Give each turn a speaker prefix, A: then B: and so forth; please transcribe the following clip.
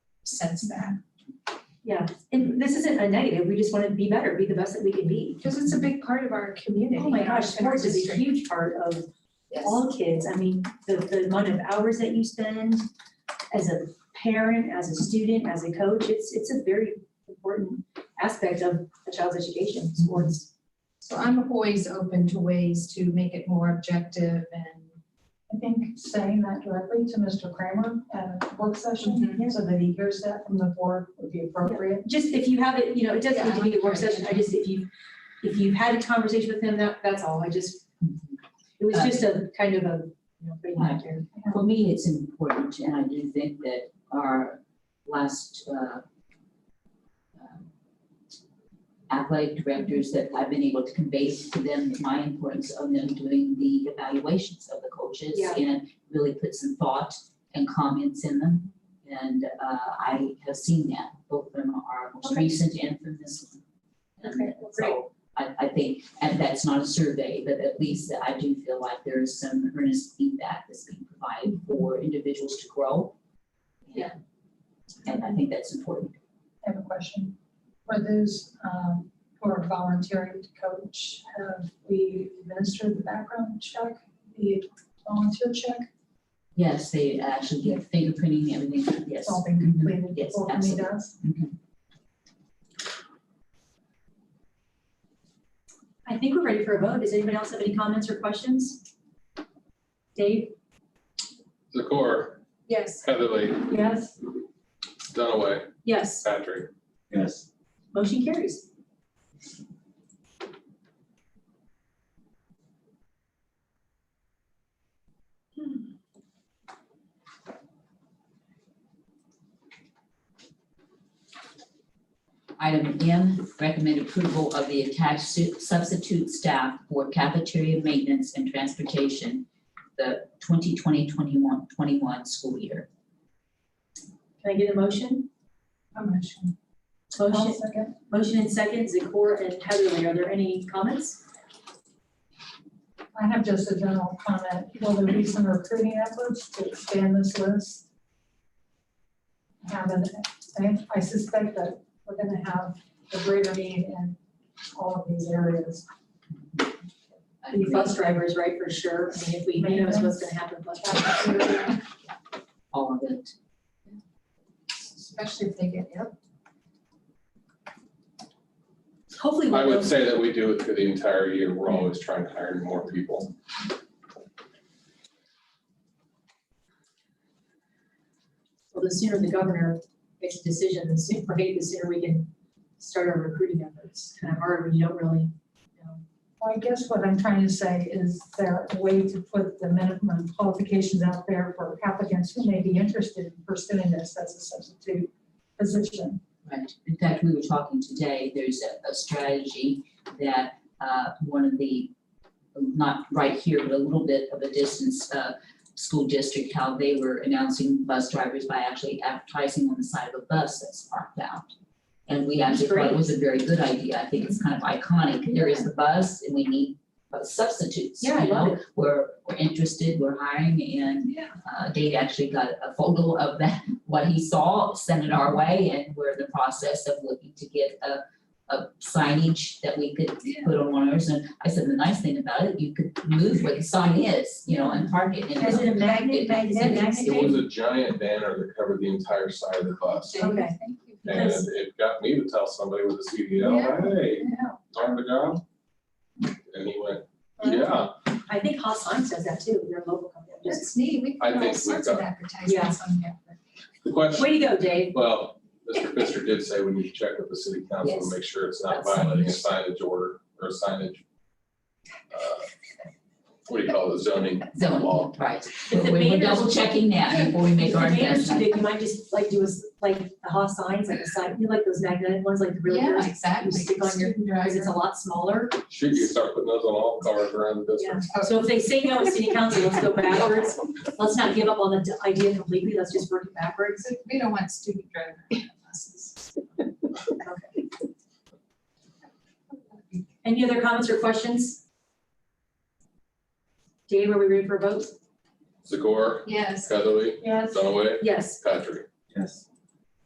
A: sense that,
B: Yeah, and this isn't a negative, we just wanna be better, be the best that we can be.
A: because it's a big part of our community.
B: Oh my gosh,
A: and our
B: sports is a
A: district.
B: huge part of
A: Yes.
B: all kids, I mean, the, the amount of hours that you spend as a parent, as a student, as a coach, it's, it's a very important aspect of a child's education, sports.
C: So I'm always open to ways to make it more objective and,
D: I think saying that directly to Mr. Kramer at a work session,
B: Yeah.
D: so that he hears that from the board would be appropriate.
B: Just if you have it, you know, it doesn't need to be a work
C: Yeah.
B: session, I just, if you, if you've had a conversation with him, that, that's all, I just, it was just a kind of a, you know, putting it out there.
E: For me, it's important, and I do think that our last uh, um, uh, athletic directors that I've been able to convey to them my importance of them doing the evaluations of the coaches
B: Yeah.
E: and really put some thought and comments in them. And uh, I have seen that, both of them are most
B: Okay.
E: recent and from this one. And
B: Okay, well, great.
E: so I, I think, and that's not a survey, but at least I do feel like there is some earnest feedback that's being provided for individuals to grow.
B: Yeah.
E: And I think that's important.
D: I have a question. For those um, who are volunteering to coach, have we administered the background check, the volunteer check?
E: Yes, they actually get fingerprinting, everything, yes.
D: It's
B: Oh,
D: all been completed
E: Yes,
D: before we
E: absolutely.
D: does?
B: I think we're ready for a vote. Does anyone else have any comments or questions? Dave?
F: Zakor,
A: Yes,
F: Heatherly,
D: Yes.
F: Dunaway,
B: Yes.
F: Patrick.
G: Yes.
B: Motion carries.
E: Item M, recommend approval of the attached su- substitute staff for cafeteria maintenance and transportation, the 2020-21 21 school year.
B: Can I get a motion?
D: I'm not sure. I'll
B: Motion,
D: second.
B: motion and second, Zakor and Heatherly. Are there any comments?
D: I have just a general comment. Will there be some recruiting efforts to expand this list? Have an, I- I suspect that we're gonna have a greater need in all of these areas.
E: I
B: The
E: agree.
B: bus drivers, right, for sure. I mean, if we, who knows what's gonna happen. with bus drivers.
E: All of it.
C: especially if they get ill.
B: Hopefully,
F: I
B: we'll
F: would
B: know.
F: say that we do it for the entire year. We're always trying to hire more people.
B: Well, the sooner the governor makes a decision, the sooner, right, the sooner we can start our recruiting efforts. Kind of hard when you don't really know.
D: Well, I guess what I'm trying to say is there a way to put the minimum qualifications out there for applicants who may be interested in pursuing this as a substitute position?
E: Right. In fact, we were talking today, there's a, a strategy that, uh, one of the, not right here, but a little bit of a distance, uh, school district, how they were announcing bus drivers by actually advertising on the side of a bus that's parked out. And we actually thought it was a very good idea. I think it's kind of iconic. There is the bus and we need uh, substitutes, you
B: Yeah, I love
E: know? We're, we're interested, we're hiring and
C: Yeah.
E: uh, Dave actually got a photo of that, what he saw, sent it our way, and we're in the process of looking to get a, a signage that we could
C: Yeah.
E: put on ours, and I said, the nice thing about it, you could move where the sign is, you know, and park it,
B: Is
E: and
B: it a magnet, magnet, magnet?
F: It was a giant banner that covered the entire side of the bus.
B: Okay.
C: Thank you.
F: And
B: Yes.
F: it got me to tell somebody with a CDL, hey, darn the job. And he went, yeah,
B: I think Hot Signs does that too, they're a local company. Just-
C: That's neat, we
F: I
C: can put all
F: think we've
C: sorts of
F: got-
C: advertisements on here.
F: the question,
B: Way to go, Dave.
F: well, Mr. Pfister did say we need to check with the city council
E: Yes.
F: to make sure it's not
E: That's-
F: violating a signage order or a signage. uh, What do you call it, zoning
E: zone,
F: law?
E: right.
B: If the
E: We're, we're
B: banners-
E: double checking that before we make our
B: If the banners too
E: investment.
B: big, you might just like do us, like the Hot Signs, like a sign, you like those magnet ones, like the real
C: Yeah,
B: yours,
C: exactly.
B: stick on your-
C: Student
B: because it's a
C: driver.
B: lot smaller.
F: Should you start putting those on all cars around the district?
C: Oh.
B: So if they say no at city council, let's go backwards. Let's not give up on the d- idea completely, let's just work it backwards.
C: So We don't want student driver buses.
B: Any other comments or questions? Dave, are we ready for a vote?
F: Zakor,
C: Yes.
F: Heatherly,
D: Yes.
F: Dunaway,
B: Yes.
F: Patrick.
G: Yes.